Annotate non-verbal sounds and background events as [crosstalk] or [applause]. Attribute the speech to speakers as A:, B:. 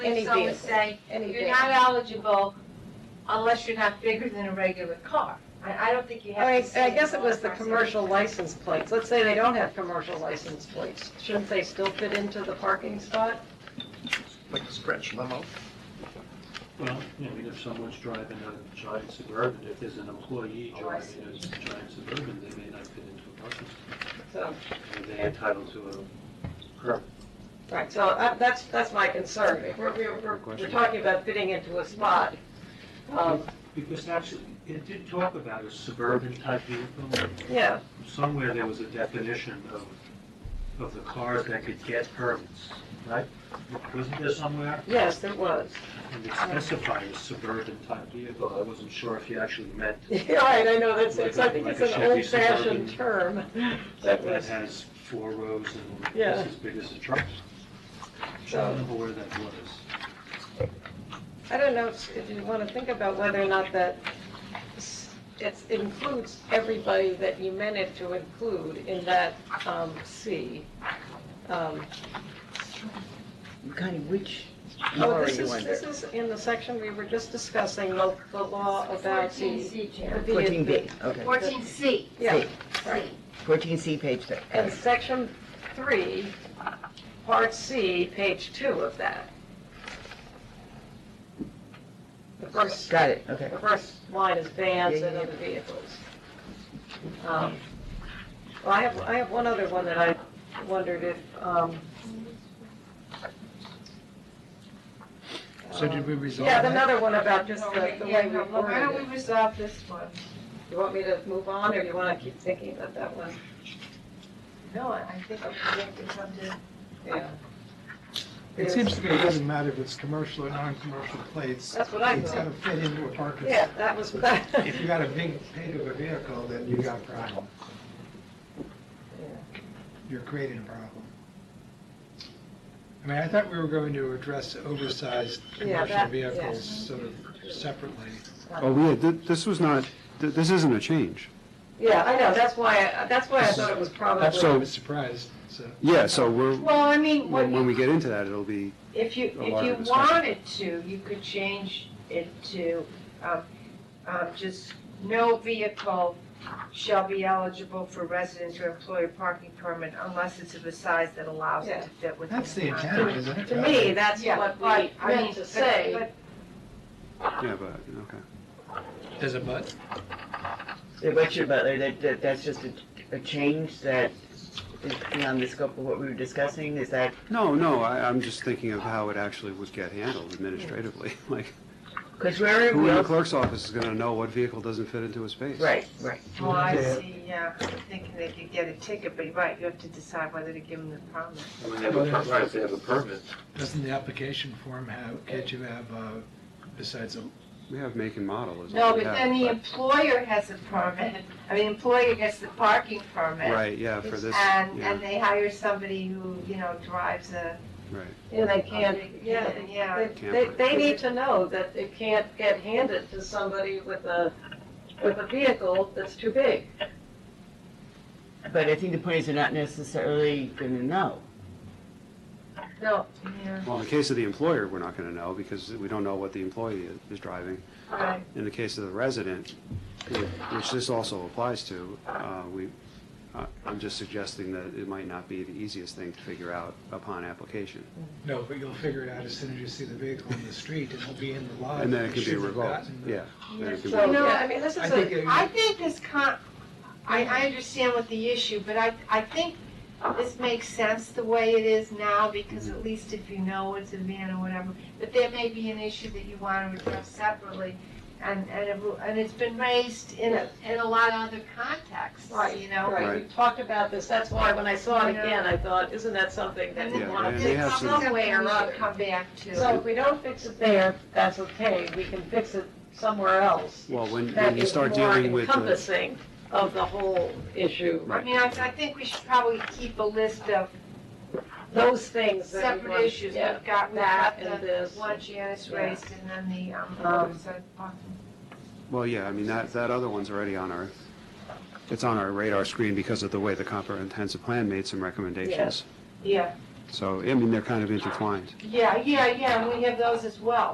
A: It's
B: Any
A: always
B: vehicle,
A: say,
B: any
A: you're not eligible unless you're not bigger than a regular car. I, I don't think you
B: I
A: have
B: mean,
A: to say.
B: I guess it was the
A: all across
B: commercial license plates. Let's say they don't have commercial license plates. Shouldn't they still fit into the parking spot?
C: like a stretch limo.
D: Well, you know, I mean, if someone's driving a giant suburban, if there's an employee
B: Oh, I
D: driving a giant suburban, they may not fit into a parking
B: So,
D: space. They're entitled to a curb.
B: right, so I- that's, that's my concern. If we're, we're- we're, we're talking about fitting into a spot, um,
D: Because actually, it did talk about a suburban type vehicle.
B: yeah,
D: Somewhere there was a definition of, of the cars that could get permits, right? Wasn't there somewhere?
B: yes, it was.
D: And
B: Oh.
D: it specified a suburban type vehicle. I wasn't sure if you actually meant
B: [laughs] Yeah, all right, I know, that's, it's, I think
D: Like
B: it's
D: a- like
B: an
D: a Chevy
B: old-fashioned
D: Suburban.
B: term.
D: that
B: That was,
D: has four rows and
B: Yeah.
D: it's as big as a truck. I
B: so.
D: don't remember where that was.
B: I don't know if if you want to think about whether or not that s- it includes everybody that you meant it to include in that um, C. Um,
E: Kind of which
B: Oh,
E: law
B: this
E: you
B: is,
E: under?
B: this is in the section we were just discussing, the the law about the.
F: 14C,
B: the
F: Chair.
B: vehi-
E: 14B, okay.
F: 14C.
B: Yeah,
F: C.
E: 14C, page 3.
B: and section three, part C, page two of that. The first
E: Got it, okay.
B: The first line is vans
E: Yeah,
B: and
E: yeah, yeah.
B: other vehicles. Um, Well, I have, I have one other one that I wondered if, um...
C: So did we
B: um,
C: resolve
B: Yeah,
C: that?
B: another one about just
A: the-
B: the, the
A: yeah,
B: way we
A: no, Why don't we
B: worded it.
A: resolve this one?
B: You want me to move on, or you want to keep thinking about that one?
A: No, I I think I have to come to.
B: Yeah.
G: It seems to me it doesn't matter if it's commercial or non-commercial plates.
B: That's what I
G: It's
B: thought.
G: gonna fit into a parking
B: Yeah,
G: lot.
B: that was, that.
G: If you got a big pig of a vehicle, then you got a problem. You're creating a problem. I mean, I thought we were going to address oversized
B: Yeah,
G: commercial
B: that-
G: vehicles
B: yes.
G: sort of separately.
H: Oh, yeah, th- this was not, th- this isn't a change.
B: [laughs] Yeah, I know, that's why, I- that's why I thought it was
G: I
H: So-
B: probably,
G: was surprised, so.
H: Yeah, so we're,
A: Well, I mean, what
H: when when we
A: you,
H: get into that, it'll be,
A: if you,
H: a
A: if
H: larger
A: you
H: discussion.
A: wanted to, you could change it to, um, um, just no vehicle shall be eligible for residence or employer parking permit unless it's of a size that allows it
B: Yeah.
A: to fit within.
G: That's the
A: contours.
G: intent, isn't it?
B: to me, that's
A: Yeah,
B: what
A: but,
B: we
A: I mean,
B: meant to
A: but-
B: say.
A: but
H: yeah, but, okay.
G: There's a but?
E: Yeah, What's your butler, that, that, that's just a, a change that is beyond the scope of what we were discussing, is that?
H: No, no, I, I'm just thinking of how it actually would get handled administratively. [laughs] Like,
E: Because where are
H: who
E: we,
H: in the
E: all-
H: clerk's office is gonna know what vehicle doesn't fit into a space?
E: right, right.
A: Oh, I see, yeah, I'm thinking they could get a ticket, but you're right, you have to decide whether to give them the permit.
D: When they have a per- Right, if they have a permit.
G: Doesn't the application form have, can't you have, uh, besides a
H: We have make and model is
A: No,
H: all we
A: but
H: have.
A: then the employer has a permit, I mean, employer gets the parking
H: but-
A: permit.
H: Right, yeah, for this,
A: And,
H: yeah,
A: and they hire somebody who, you know, drives a.
H: right.
B: Yeah, they can't, yeah,
A: Yeah,
B: they, they, they need to know that it can't get handed to somebody with a, with a vehicle that's too big.
E: But I think the point is they're not necessarily going to know.
B: No,
A: yeah,
H: Well, in the case of the employer, we're not gonna know, because we don't know what the employee is- is driving.
A: right.
H: In the case of the resident, which this also applies to, uh, we, I- I'm just suggesting that it might not be the easiest thing to figure out upon application.
G: No, but you'll figure it out as soon as you see the vehicle in the street, and it'll be in the lot.
H: And then it
G: You
H: can be
G: Uh, shouldn't have
H: revoked,
G: gotten the-
H: yeah. Then it can be
B: so,
H: revoked.
B: yeah, I mean, this
G: I
B: is
G: think,
B: a,
G: it-
A: I think this con, I, I understand what the issue, but I, I think this makes sense the way it is now, because at least if you know it's a van or whatever, but there may be an issue that you want to address separately, and, and, it will- and it's been raised in, a- in a lot of other contexts,
B: right,
A: you know?
B: right, we talked about this, that's why when I saw it
A: You know.
B: again, I thought, isn't that something that
A: And
B: we
H: Yeah,
B: want
H: and
B: to
H: they
B: fix
H: have some-
B: some way or other?
A: Come back to.
B: So if we don't fix it there, that's okay, we can fix it somewhere else.
H: Well, when,
B: That
H: when you
B: is
H: start
B: more
H: dealing with the,
B: encompassing of the whole issue,
A: I mean, I, I think we should probably keep a list of
B: those things that we want.
A: separate issues.
B: yeah,
A: We've got
B: that
A: that,
B: and
A: the
B: this.
A: one Janice
B: Yeah.
A: raised, and then the, um,
B: Um,
A: oversized parking.
H: well, yeah, I mean, that, that other one's already on our, it's on our radar screen because of the way the comprehensive plan made some recommendations.
A: yeah.
H: So, I mean, they're kind of intertwined.
A: Yeah, yeah, yeah, and we have those as well.